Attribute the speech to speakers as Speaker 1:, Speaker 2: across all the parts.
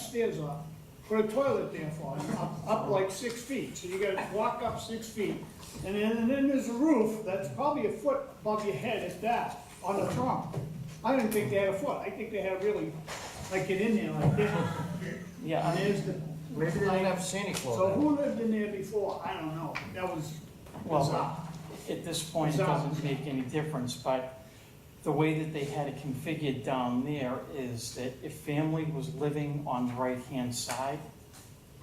Speaker 1: stairs up, put a toilet there for them, up, up like six feet, so you gotta walk up six feet. And then, and then there's a roof that's probably a foot above your head at that, on the trunk. I didn't think they had a foot, I think they had really, like, get in there like this,
Speaker 2: Yeah, I
Speaker 1: and
Speaker 2: mean,
Speaker 1: there's the.
Speaker 3: Maybe they didn't have Santa
Speaker 1: So
Speaker 3: Claus.
Speaker 1: who lived in there before? I don't know, that was
Speaker 2: Well,
Speaker 1: bizarre.
Speaker 2: at this point, it doesn't make any difference, but the way that they had it configured down there is that if family was living on the right-hand side,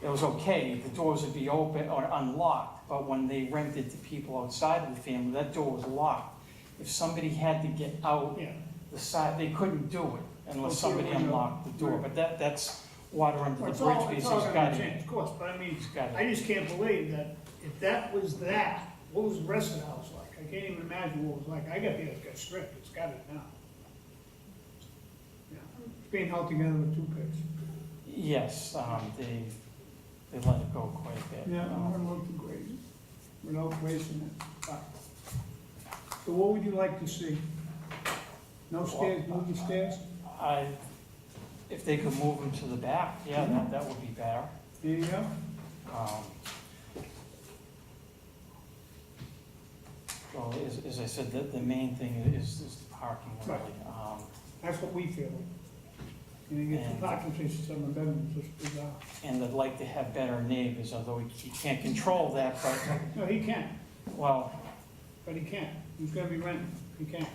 Speaker 2: it was okay, the doors would be open or unlocked, but when they rented to people outside of the family, that door was locked. If somebody had to get out
Speaker 1: Yeah,
Speaker 2: the side, they couldn't do it unless
Speaker 1: Okay,
Speaker 2: somebody
Speaker 1: we know.
Speaker 2: unlocked the door, but that, that's water under
Speaker 1: Well,
Speaker 2: the
Speaker 1: it's all,
Speaker 2: bridge,
Speaker 1: it's
Speaker 2: because
Speaker 1: all
Speaker 2: it's got
Speaker 1: gonna
Speaker 2: to,
Speaker 1: change, of course, but I mean,
Speaker 2: it's got to.
Speaker 1: I just can't believe that if that was that, what was the rest of the house like? I can't even imagine what it was like. I got the, it's got stripped, it's got it now. Yeah, It's being held together with two picks.
Speaker 2: Yes, um, they, they let it go quite a bit.
Speaker 1: Yeah, I'm
Speaker 2: Um,
Speaker 1: gonna look to grade it, without wasting it. All right. So what would you like to see? No stairs, move the stairs?
Speaker 2: I, if they could move them to the back, yeah, that, that would be better.
Speaker 1: There you go.
Speaker 2: Um, Well, as, as I said, the, the main thing is, is the parking really. Um,
Speaker 1: That's what we feel. And you get the parking spaces on the bedrooms, it's bizarre.
Speaker 2: And I'd like to have better neighbors, although we c- can't control that, but,
Speaker 1: No, he can't,
Speaker 2: well,
Speaker 1: but he can't. He's gonna be renting, he can't.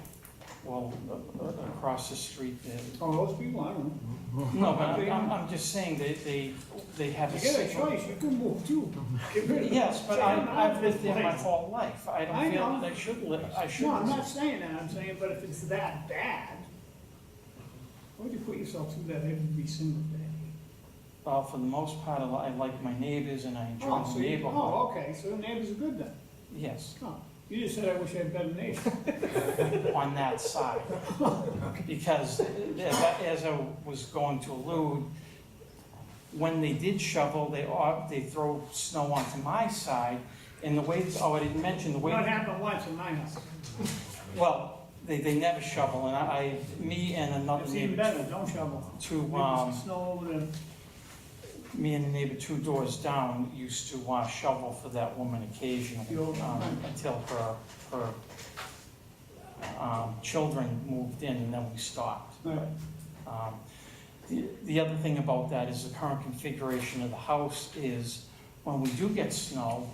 Speaker 2: well, a- a- across the street, uh,
Speaker 1: Oh, those people, I don't know.
Speaker 2: no, but I'm- I'm, I'm just saying they, they, they have a.
Speaker 1: You get a
Speaker 2: sick-
Speaker 1: choice, you can move too. Get rid of it.
Speaker 2: Yes, but I,
Speaker 1: Say, I'm out of
Speaker 2: I've lived
Speaker 1: this
Speaker 2: there my
Speaker 1: place.
Speaker 2: whole life. I
Speaker 1: I
Speaker 2: don't feel
Speaker 1: know.
Speaker 2: that I should live, I should.
Speaker 1: No, I'm not saying that, I'm saying, but if it's that bad, why would you put yourself through that every single day?
Speaker 2: Well, for the most part, I li- I like my neighbors and I enjoy
Speaker 1: Oh, so
Speaker 2: the
Speaker 1: you-
Speaker 2: neighborhood.
Speaker 1: Oh, okay, so the neighbors are good then.
Speaker 2: Yes,
Speaker 1: Oh, you just said I wish I had better neighbors.
Speaker 2: on that side. Because as I, as I was going to allude, when they did shovel, they, au- they throw snow onto my side. And the way, oh, I didn't mention the way.
Speaker 1: Not happened once in my house.
Speaker 2: Well, they, they never shovel and I, I- me and another
Speaker 1: It's even
Speaker 2: neighbor,
Speaker 1: better, don't shovel.
Speaker 2: two, um.
Speaker 1: There's snow over there.
Speaker 2: me and the neighbor two doors down used to uh, shovel for that woman occasionally, um, until her, her, um, children moved in and then we stopped.
Speaker 1: Right.
Speaker 2: Um, The, the other thing about that is the current configuration of the house is, when we do get snow,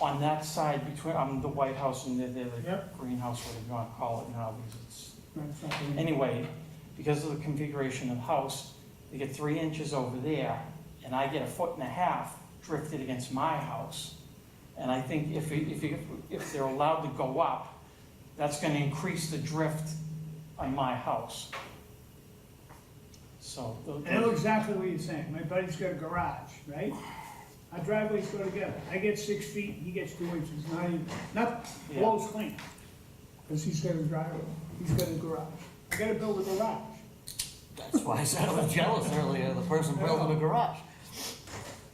Speaker 2: on that side between, um, the White House and the, the the
Speaker 1: Yep. greenhouse
Speaker 2: greenhouse, whatever you wanna call it now, because it's
Speaker 1: Right, it's not gonna-
Speaker 2: Anyway, because of the configuration of the house, they get three inches over there, and I get a foot and a half drifted against my house. And I think if, it- if, it- if they're allowed to go up, that's gonna increase the drift on my house. So, tho-
Speaker 1: I know
Speaker 2: tho-
Speaker 1: exactly what you're saying. My buddy's got a garage, right? Our driveways go together. I get six feet, he gets two inches, not even, not
Speaker 2: Yeah.
Speaker 1: blows clean. Cause he's got a driveway, he's got a garage. I gotta build a garage.
Speaker 3: That's why I said I was jealous earlier, the person building the garage.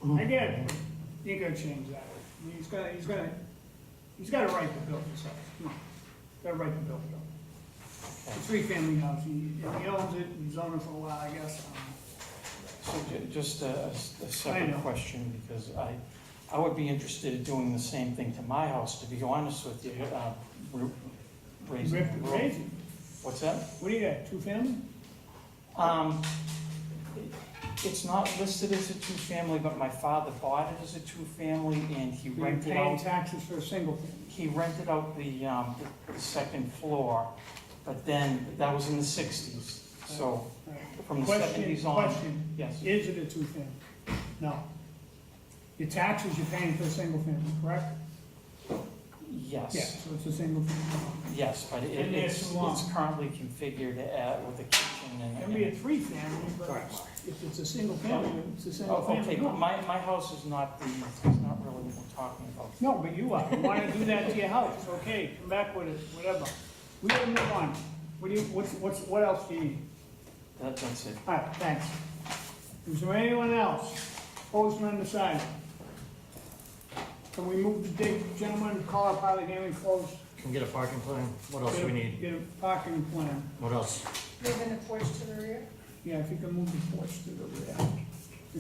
Speaker 2: Mm-hmm.
Speaker 1: I get it. You ain't gonna change that. I mean, He's gonna, he's gonna, he's got a right to build this house. Come on. He's Got a right to build it. It's a three-family house. He, and he owns it, he's owned it for a while, I guess. I don't know.
Speaker 2: so ju- just a, a s- a
Speaker 1: know.
Speaker 2: separate question, because I, I would be interested in doing the same thing to my house, to be honest with you, uh, ra- raising
Speaker 1: Ripped
Speaker 2: the
Speaker 1: it
Speaker 2: roof.
Speaker 1: crazy.
Speaker 2: What's that?
Speaker 1: What do you got, two-family?
Speaker 2: Um, it's not listed as a two-family, but my father bought it as a two-family and he
Speaker 1: You're
Speaker 2: rented
Speaker 1: paying
Speaker 2: out,
Speaker 1: taxes for a single family.
Speaker 2: he rented out the, um, the second floor, but then, that was in the sixties, so
Speaker 1: All right.
Speaker 2: from the
Speaker 1: Question,
Speaker 2: seventies on.
Speaker 1: question,
Speaker 2: Yes,
Speaker 1: is it a two-family? No. Your taxes you're paying for a single family, correct? Yeah,
Speaker 2: yes,
Speaker 1: so it's a single family.
Speaker 2: yes, but
Speaker 1: Been
Speaker 2: it,
Speaker 1: there
Speaker 2: it's,
Speaker 1: too long.
Speaker 2: it's currently configured at, with a kitchen and.
Speaker 1: It can be a three-family, but if it's a single family, it's a single
Speaker 2: Oh,
Speaker 1: family.
Speaker 2: okay, but my, my house is not the, it's not really what we're talking about.
Speaker 1: No, but you are, you wanna do that to your house, okay, come back with it, whatever. We gotta move on. What do you, what's, what's, what else do you need?
Speaker 2: That, that's it.
Speaker 1: All right, thanks. Is there anyone else? Opposed or undecided? Can we move the date, gentlemen, call our pilot hearing closed?
Speaker 3: Can get a parking plan, what else
Speaker 1: Get a-
Speaker 3: we need?
Speaker 1: Get a parking plan.
Speaker 3: What else?
Speaker 4: Moving the porch to the rear?
Speaker 1: Yeah, if you can move the porch to the rear.